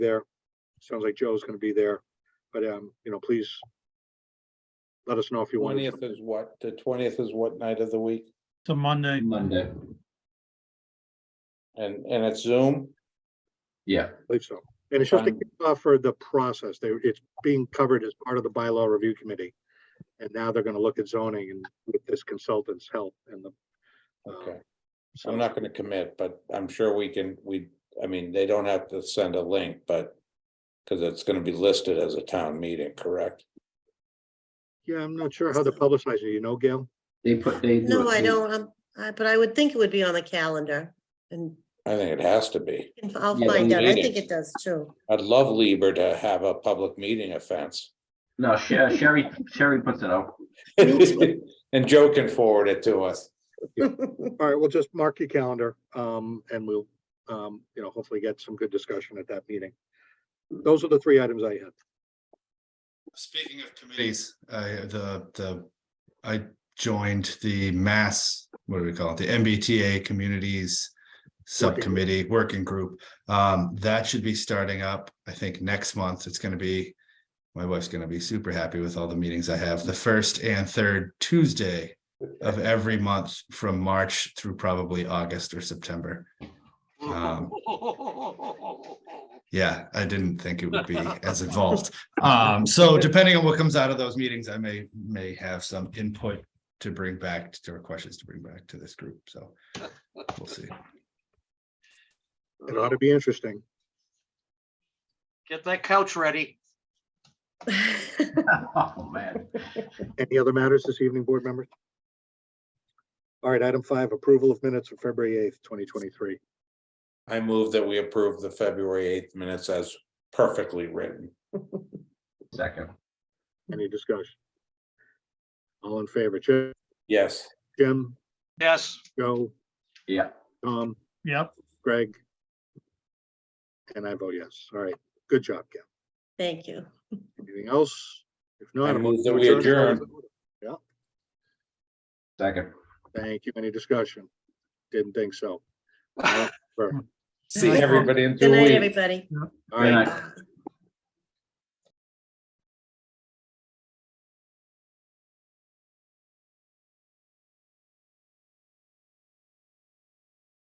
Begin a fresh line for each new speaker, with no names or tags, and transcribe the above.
there. Sounds like Joe's gonna be there, but, um, you know, please let us know if you want. to.
Twentieth is what, the twentieth is what night of the week?
It's a Monday.
Monday,
And, and it's Zoom?
yeah,
believe so. And it's just to
Fine.
kick off for the process. They, it's being covered as part of the bylaw review committee. And now they're gonna look at zoning and with this consultant's help and the. uh,
Okay,
so-
I'm not gonna commit, but I'm sure we can, we, I mean, they don't have to send a link, but. Cause it's gonna be listed as a town meeting, correct?
Yeah, I'm not sure how to publicize it, you know, Gail?
they put, they. do
No,
it
I
too.
don't, um, I- but I would think it would be on the calendar and
I think it has to be.
and I'll
Yeah,
find
the
out. I
meeting.
think it does too.
I'd love Lieber to have a public meeting offense.
No, Sher- Sherry, Sherry puts it out.
And Joe can forward it to us.
All right, well, just mark your calendar, um, and we'll, um, you know, hopefully get some good discussion at that meeting. Those are the three items I had.
Speaking of committees, I, the, the, I joined the mass, what do we call it? The MBTA Communities Subcommittee Working Group. Um, that should be starting up, I think, next month. It's gonna be, my wife's gonna be super happy with all the meetings I have, the first and third Tuesday of every month from March through probably August or September. Um, Yeah, I didn't think it would be as involved. Um, so depending on what comes out of those meetings, I may, may have some input to bring back to, or questions to bring back to this group, so. We'll see.
It ought to be interesting.
Get that couch ready.
Oh, man.
Any other matters this evening, board members? All right, item five, approval of minutes of February eighth, twenty twenty-three.
I move that we approve the February eighth minutes as perfectly written.
Second,
Any discussion? All in favor, Jim,
Yes,
Jim,
Yes,
Joe,
yeah,
Tom,
Yep.
Greg? And I vote yes. All right, good job, Ken.
Thank you.
Anything else? If not.
I
a
move
motion
that
to
we
adjourn.
second.
Thank you. Any discussion? Didn't think so. All
see everybody in two
Good night,
weeks.
everybody.
right.
Good night.
Bye.